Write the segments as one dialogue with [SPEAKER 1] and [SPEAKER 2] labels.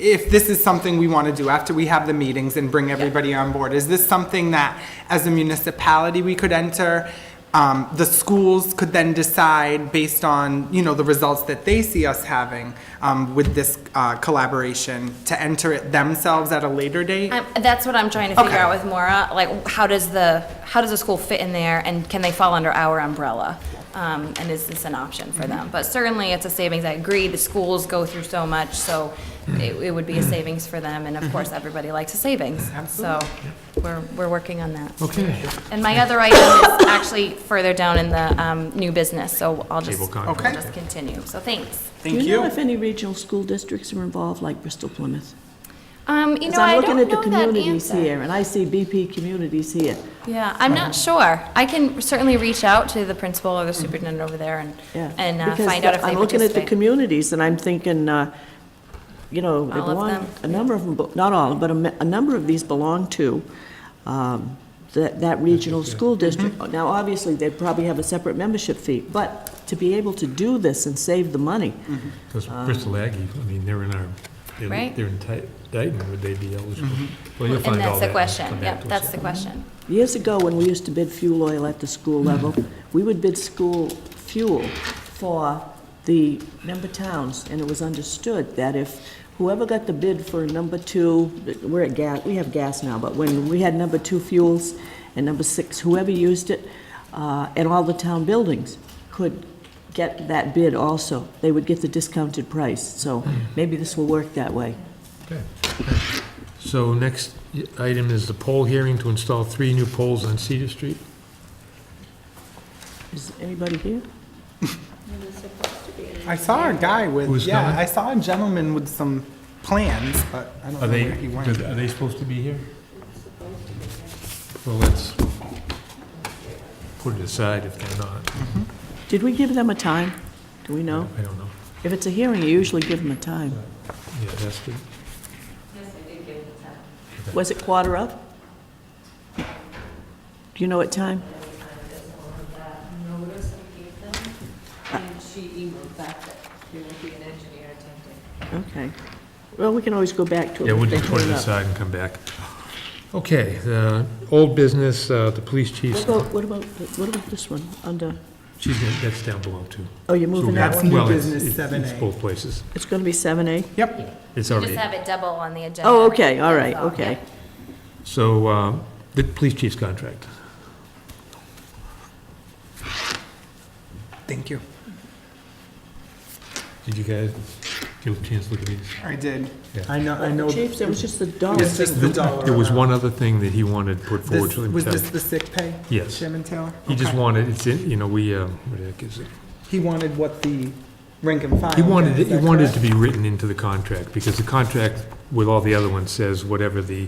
[SPEAKER 1] if this is something we want to do after we have the meetings and bring everybody on board, is this something that, as a municipality, we could enter? Um, The schools could then decide, based on, you know, the results that they see us having um, with this uh, collaboration, to enter it themselves at a later date?
[SPEAKER 2] Um, That's what I'm trying to figure
[SPEAKER 1] Okay.
[SPEAKER 2] out with Maura, like, how does the, how does the school fit in there, and can they fall under our umbrella? Um, and is this an option for
[SPEAKER 3] Mm-hmm.
[SPEAKER 2] them? But certainly, it's a savings, I agree, the schools go through so much, so
[SPEAKER 3] Mm-hmm.
[SPEAKER 2] it, it would be a savings for them, and of course, everybody likes a savings, so we're, we're working on that.
[SPEAKER 4] Okay.
[SPEAKER 2] And my other item is actually further down in the, um, new business, so I'll just,
[SPEAKER 4] Table
[SPEAKER 2] I'll
[SPEAKER 1] Okay.
[SPEAKER 4] content.
[SPEAKER 2] just continue, so thanks.
[SPEAKER 1] Thank
[SPEAKER 3] Do you know
[SPEAKER 1] you.
[SPEAKER 3] if any regional school districts are involved, like Bristol Plymouth?
[SPEAKER 2] Um, you
[SPEAKER 3] Because
[SPEAKER 2] know, I
[SPEAKER 3] I'm
[SPEAKER 2] don't
[SPEAKER 3] looking
[SPEAKER 2] know
[SPEAKER 3] at the
[SPEAKER 2] that answer.
[SPEAKER 3] communities here, and I see BP communities here.
[SPEAKER 2] Yeah, I'm not sure. I can certainly reach out to the principal or the superintendent over there and,
[SPEAKER 3] Mm-hmm. Yeah.
[SPEAKER 2] and uh,
[SPEAKER 3] Because
[SPEAKER 2] find out if
[SPEAKER 3] the-
[SPEAKER 2] they
[SPEAKER 3] I'm looking at the
[SPEAKER 2] participate.
[SPEAKER 3] communities, and I'm thinking, uh, you know, they
[SPEAKER 2] All of them.
[SPEAKER 3] belong, a number of them, be- not all, but a me- a number of these belong to um, that that regional school
[SPEAKER 2] Mm-hmm.
[SPEAKER 3] district. Now, obviously, they probably have a separate membership fee, but to be able to do this and save the money,
[SPEAKER 4] Because Bristol Aggie, I mean, they're in our, they're-
[SPEAKER 2] Right. Mm-hmm.
[SPEAKER 4] they're in Ti- Dayton, would they be eligible? Well, you'll
[SPEAKER 2] And
[SPEAKER 4] find
[SPEAKER 2] that's
[SPEAKER 4] all
[SPEAKER 2] the
[SPEAKER 4] that
[SPEAKER 2] question.
[SPEAKER 4] come
[SPEAKER 2] Yep,
[SPEAKER 4] back to us.
[SPEAKER 2] that's the question.
[SPEAKER 3] Years ago, when we used to bid fuel oil at the school level, we would bid school fuel for the member towns, and it was understood that if whoever got the bid for number two, we're at gas, we have gas now, but when we had number two fuels and number six, whoever used it, uh, and all the town buildings could get that bid also. They would get the discounted price, so maybe this will work that way.
[SPEAKER 4] Okay. So next i- item is the poll hearing to install three new poles on Cedar Street.
[SPEAKER 3] Is anybody here?
[SPEAKER 1] I saw a guy with,
[SPEAKER 4] Who's
[SPEAKER 1] yeah,
[SPEAKER 4] gone?
[SPEAKER 1] I saw a gentleman with some plans, but I don't know
[SPEAKER 4] Are they,
[SPEAKER 1] where he went.
[SPEAKER 4] are they supposed to be here? Well, let's put it aside if they're not.
[SPEAKER 3] Did we give them a time? Do we know?
[SPEAKER 4] I don't know.
[SPEAKER 3] If it's a hearing, you usually give them a time.
[SPEAKER 4] Yeah, that's good.
[SPEAKER 3] Was it quarter of? Do you know what time?
[SPEAKER 5] notice we gave them, and she emailed back that there would be an engineer attending.
[SPEAKER 3] Okay. Well, we can always go back to it.
[SPEAKER 4] Yeah, we'll
[SPEAKER 3] if they
[SPEAKER 4] just put it
[SPEAKER 3] turn up.
[SPEAKER 4] aside and come back. Okay, the old business, uh, the police
[SPEAKER 3] What
[SPEAKER 4] chief's,
[SPEAKER 3] about, what about, what about this one, under,
[SPEAKER 4] she's, gonna- that's down below too.
[SPEAKER 3] oh, you're
[SPEAKER 4] So we
[SPEAKER 3] moving
[SPEAKER 4] have-
[SPEAKER 3] that
[SPEAKER 1] That's
[SPEAKER 3] one?
[SPEAKER 1] new
[SPEAKER 4] well, it's-
[SPEAKER 1] business
[SPEAKER 4] it's-
[SPEAKER 1] 7A.
[SPEAKER 4] It's both places.
[SPEAKER 3] It's going to be 7A?
[SPEAKER 1] Yep,
[SPEAKER 4] It's
[SPEAKER 2] Just
[SPEAKER 4] already,
[SPEAKER 2] have it double on the agenda.
[SPEAKER 3] Oh, okay, all right,
[SPEAKER 2] That's all,
[SPEAKER 3] okay.
[SPEAKER 2] yeah.
[SPEAKER 4] so, um, the police chief's contract.
[SPEAKER 1] thank you.
[SPEAKER 4] Did you guys get a chance to look at these?
[SPEAKER 1] I did.
[SPEAKER 4] Yeah.
[SPEAKER 1] I know, I know.
[SPEAKER 3] Chief, there was just the dollar.
[SPEAKER 1] It's just the dollar.
[SPEAKER 4] There was
[SPEAKER 1] amount.
[SPEAKER 4] one other thing that he wanted put forward
[SPEAKER 1] This-
[SPEAKER 4] to him.
[SPEAKER 1] Was this the sick pay?
[SPEAKER 4] Yes.
[SPEAKER 1] Chairman Taylor?
[SPEAKER 4] He just
[SPEAKER 1] Okay.
[SPEAKER 4] wanted, it's, in- you know, we, uh, what the heck is it?
[SPEAKER 1] He wanted what the rank and file.
[SPEAKER 4] He wanted,
[SPEAKER 1] did,
[SPEAKER 4] it-
[SPEAKER 1] is
[SPEAKER 4] he
[SPEAKER 1] that
[SPEAKER 4] wanted it
[SPEAKER 1] correct?
[SPEAKER 4] to be written into the contract, because the contract with all the other ones says whatever the,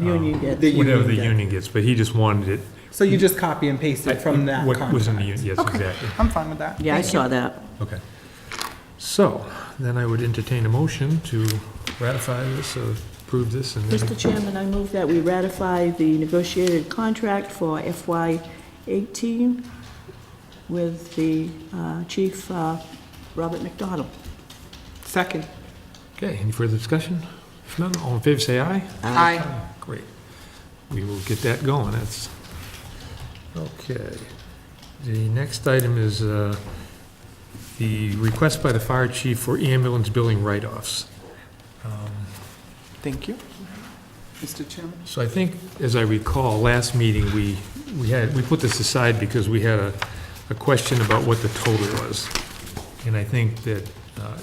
[SPEAKER 4] um,
[SPEAKER 3] Union gets.
[SPEAKER 1] The
[SPEAKER 4] whatever the
[SPEAKER 1] union gets.
[SPEAKER 4] union gets, but he just wanted it.
[SPEAKER 1] So you just copy and paste it from that
[SPEAKER 4] What was in the,
[SPEAKER 1] contract?
[SPEAKER 4] union? yes,
[SPEAKER 1] Okay.
[SPEAKER 4] exactly.
[SPEAKER 1] I'm fine with that.
[SPEAKER 3] Yeah, I
[SPEAKER 1] Thank you.
[SPEAKER 3] saw that.
[SPEAKER 4] Okay. So, then I would entertain a motion to ratify this, or approve this, and then
[SPEAKER 3] Mr. Chairman, I move that we ratify the negotiated contract for FY '18 with the uh, Chief uh, Robert McDonald.
[SPEAKER 1] Second.
[SPEAKER 4] Okay, any further discussion? If none, all in favor, say aye.
[SPEAKER 1] Aye.
[SPEAKER 4] Great. We will get that going, that's, okay. The next item is uh, the request by the fire chief for ambulance billing write-offs. Um,
[SPEAKER 1] Thank you. Mr. Chairman?
[SPEAKER 4] So I think, as I recall, last meeting, we, we had, we put this aside because we had a, a question about what the total was. And I think that uh,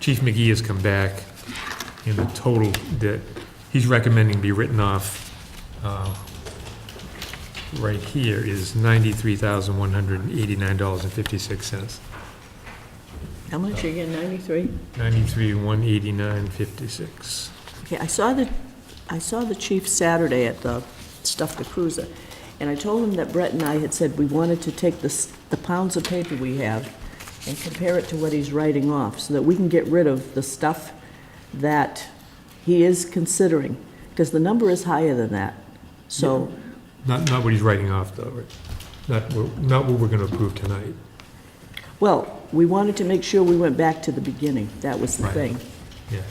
[SPEAKER 4] Chief McGee has come back, and the total that he's recommending be written off uh, right here is ninety-three thousand, one hundred and eighty-nine dollars and fifty-six cents.
[SPEAKER 3] How much again, 93?
[SPEAKER 4] Ninety-three, one eighty-nine, fifty-six.
[SPEAKER 3] Okay, I saw the, I saw the chief Saturday at the Stuff the Cruiser, and I told him that Brett and I had said we wanted to take the, s- the pounds of paper we have and compare it to what he's writing off, so that we can get rid of the stuff that he is considering, because the number is higher than that. So,
[SPEAKER 4] Not, not what he's writing off, though, right? Not, what- not what we're gonna approve tonight.
[SPEAKER 3] well, we wanted to make sure we went back to the beginning, that was the
[SPEAKER 4] Right.
[SPEAKER 3] thing.
[SPEAKER 4] Yeah,